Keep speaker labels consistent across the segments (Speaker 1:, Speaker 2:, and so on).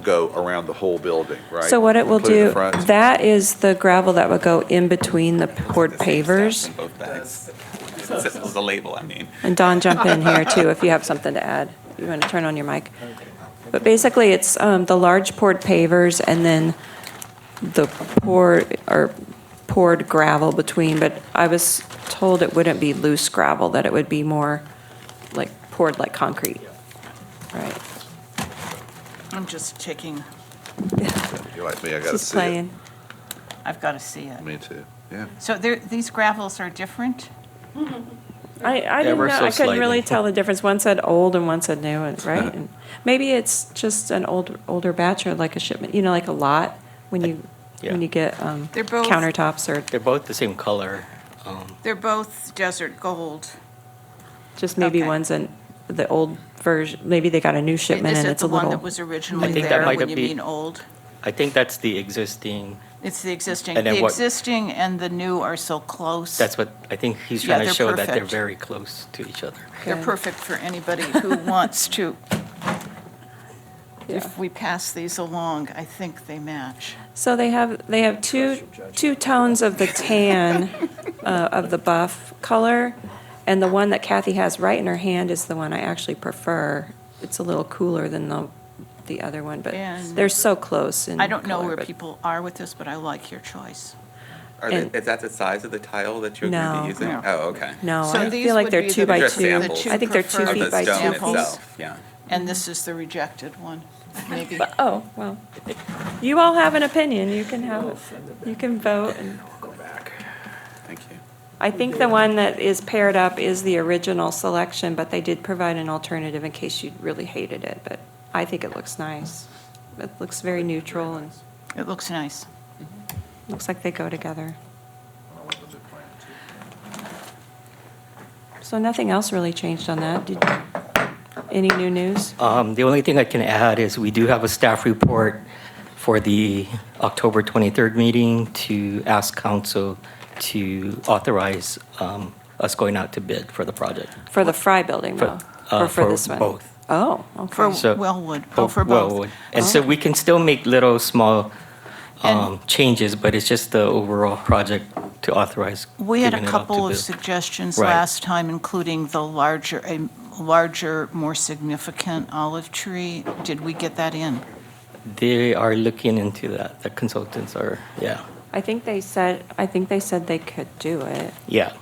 Speaker 1: go around the whole building, right?
Speaker 2: So what it will
Speaker 1: Including
Speaker 2: do,
Speaker 1: the front?
Speaker 2: that is the gravel that would go in between the poured pavers.
Speaker 3: In both bags. It's a label, I mean.
Speaker 2: And Don, jump in here too, if you have something to add. You want to turn on your mic. But basically, it's um, the large poured pavers and then the poured, or poured gravel between, but I was told it wouldn't be loose gravel, that it would be more like poured like concrete. Right.
Speaker 4: I'm just checking.
Speaker 1: You're like me, I gotta
Speaker 2: Just
Speaker 1: see it.
Speaker 2: playing.
Speaker 4: I've got to see it.
Speaker 1: Me too, yeah.
Speaker 4: So there, these gravels are different?
Speaker 2: I, I didn't
Speaker 5: Ever
Speaker 2: know,
Speaker 5: so
Speaker 2: I couldn't really
Speaker 5: slightly.
Speaker 2: tell the difference. One said old and one said new, and-
Speaker 5: Uh-huh.
Speaker 2: right? And Maybe it's just an old, older batch or like a shipment, you know, like a lot when you,
Speaker 5: Yeah.
Speaker 2: when you get um,
Speaker 4: They're both-
Speaker 2: countertops or
Speaker 5: They're both the same color. Um,
Speaker 4: They're both desert gold.
Speaker 2: just maybe
Speaker 4: Okay.
Speaker 2: one's an, the old version, maybe they got a new shipment
Speaker 4: Is
Speaker 2: and
Speaker 4: it
Speaker 2: it's a
Speaker 4: the one that
Speaker 2: little.
Speaker 4: was originally
Speaker 5: think that
Speaker 4: there
Speaker 5: might
Speaker 4: when you
Speaker 5: be-
Speaker 4: mean old?
Speaker 5: I think that's the existing.
Speaker 4: It's the existing.
Speaker 5: And then
Speaker 4: The
Speaker 5: what-
Speaker 4: existing and the new are so close.
Speaker 5: That's what I think he's
Speaker 4: Yeah,
Speaker 5: trying to
Speaker 4: they're
Speaker 5: show that they're
Speaker 4: perfect.
Speaker 5: very close to each other.
Speaker 4: They're
Speaker 2: Good.
Speaker 4: perfect for anybody who wants to.
Speaker 2: Yeah.
Speaker 4: If we pass these along, I think they match.
Speaker 2: So they have, they have two, two tones of the tan, uh, of the buff color, and the one that Kathy has right in her hand is the one I actually prefer. It's a little cooler than the, the other one, but
Speaker 4: And-
Speaker 2: they're so close in
Speaker 4: I don't know
Speaker 2: color,
Speaker 4: where
Speaker 2: but-
Speaker 4: people are with this, but I like your choice.
Speaker 3: Are they,
Speaker 2: And-
Speaker 3: is that the size of the tile that you're going to
Speaker 2: No.
Speaker 3: be using?
Speaker 4: No.
Speaker 3: Oh, okay.
Speaker 2: No,
Speaker 4: So
Speaker 2: I
Speaker 4: these
Speaker 2: feel like
Speaker 4: would
Speaker 2: they're
Speaker 4: be
Speaker 2: two
Speaker 4: the-
Speaker 2: by
Speaker 3: Just
Speaker 2: two.
Speaker 3: samples.
Speaker 2: I think they're two
Speaker 4: Of
Speaker 3: Of
Speaker 2: feet
Speaker 3: the
Speaker 2: by
Speaker 3: stone
Speaker 2: two feet.
Speaker 3: itself, yeah.
Speaker 4: And this is the rejected one, maybe.
Speaker 2: But- Oh, well, you all have an opinion, you can have, it. you can vote. and-
Speaker 3: Thank you.
Speaker 2: I think the one that is paired up is the original selection, but they did provide an alternative in case you really hated it, but I think it looks nice. It looks very neutral and
Speaker 4: It looks nice.
Speaker 2: looks like they go together. So nothing else really changed on that? Did- Any new news?
Speaker 5: Um, The only thing I can add is we do have a staff report for the October 23rd meeting to ask council to authorize um, us going out to bid for the project.
Speaker 2: For the Fry building,
Speaker 5: For-
Speaker 2: though?
Speaker 5: uh,
Speaker 2: Or for
Speaker 5: for
Speaker 2: this one?
Speaker 5: both.
Speaker 2: Oh,
Speaker 4: For
Speaker 2: okay.
Speaker 5: So-
Speaker 4: Wellwood, oh, for both. Oh.
Speaker 5: Wellwood. And so we can still make little, small
Speaker 4: And-
Speaker 5: um, changes, but it's just the overall project to authorize.
Speaker 4: We had a
Speaker 5: giving it out to
Speaker 4: couple of
Speaker 5: bid.
Speaker 4: suggestions
Speaker 5: Right.
Speaker 4: last time, including the larger, a larger, more significant olive tree. Did we get that in?
Speaker 5: They are looking into that. The consultants are, yeah,
Speaker 2: I think they said, I think they said they could do it.
Speaker 5: yeah.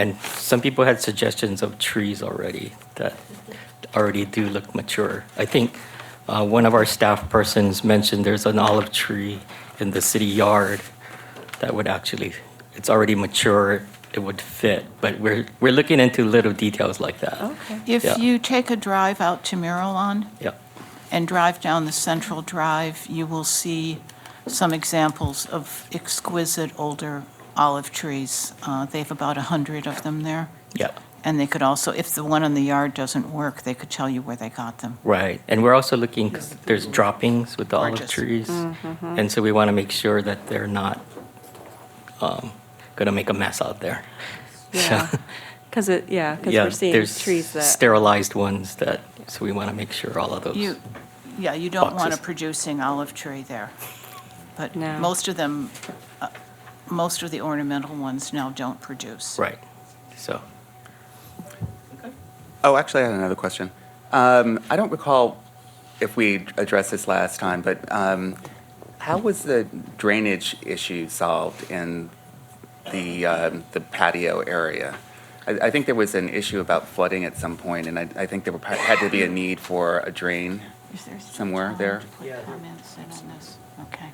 Speaker 5: And some people had suggestions of trees already that already do look mature. I think uh, one of our staff persons mentioned there's an olive tree in the city yard that would actually, it's already mature, it would fit. But we're, we're looking into little details like that.
Speaker 2: Okay.
Speaker 5: Yeah.
Speaker 4: If you take a drive out to Miralon
Speaker 5: Yeah,
Speaker 4: and drive down the Central Drive, you will see some examples of exquisite older olive trees. Uh, They have about 100 of them there.
Speaker 5: yeah,
Speaker 4: And they could also, if the one in the yard doesn't work, they could tell you where they got them.
Speaker 5: right. And we're also looking, 'cause there's droppings with the olive
Speaker 4: Gorgeous.
Speaker 5: trees.
Speaker 2: Mm-hmm.
Speaker 5: And so we want to make sure that they're not going to make a mess out there.
Speaker 2: Yeah, because it, yeah, because
Speaker 5: Yeah,
Speaker 2: we're seeing
Speaker 5: there's
Speaker 2: trees that,
Speaker 5: Sterilized ones that, so we want to make sure all of those.
Speaker 4: You, yeah, you don't want a
Speaker 5: Boxes.
Speaker 4: producing olive tree there. But
Speaker 2: No.
Speaker 4: most of them, uh, most of the ornamental ones now don't produce.
Speaker 5: Right, so,
Speaker 3: Oh, actually, I had another question. Um, I don't recall if we addressed this last time, but um, how was the drainage issue solved in the um, the patio area? I, I think there was an issue about flooding at some point, and I, I think there were, had to be a need for a drain.
Speaker 4: Is there still
Speaker 3: Somewhere
Speaker 4: time
Speaker 3: there.
Speaker 4: to put comments in on this? Okay.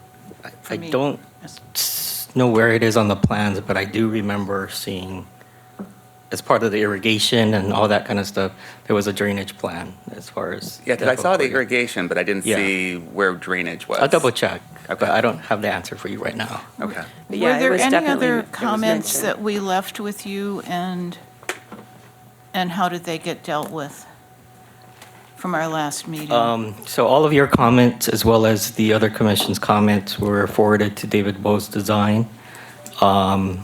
Speaker 4: Uh, For
Speaker 5: I
Speaker 4: me,
Speaker 5: don't
Speaker 4: yes.
Speaker 5: s- know where it is on the plans, but I do remember seeing, as part of the irrigation and all that kind of stuff, there was a drainage plan as far as.
Speaker 3: Yeah, because I saw the
Speaker 5: evaporating.
Speaker 3: irrigation, but I didn't
Speaker 5: Yeah.
Speaker 3: see where drainage was.
Speaker 5: I'll double check, but
Speaker 3: Okay.
Speaker 5: I don't have the answer for you right now.
Speaker 3: Okay.
Speaker 2: But yeah, it was
Speaker 4: Were
Speaker 2: definitely-
Speaker 4: there
Speaker 2: it
Speaker 4: any other
Speaker 2: was
Speaker 4: comments
Speaker 2: mentioned.
Speaker 4: that we left with you and, and how did they get dealt with from our last meeting?
Speaker 5: Um, So all of your comments, as well as the other commission's comments, were forwarded to David Bowe's design. Um,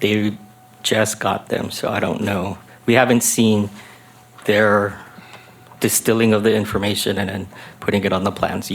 Speaker 5: They just got them, so I don't know. We haven't seen their distilling of the information and then putting it on the plans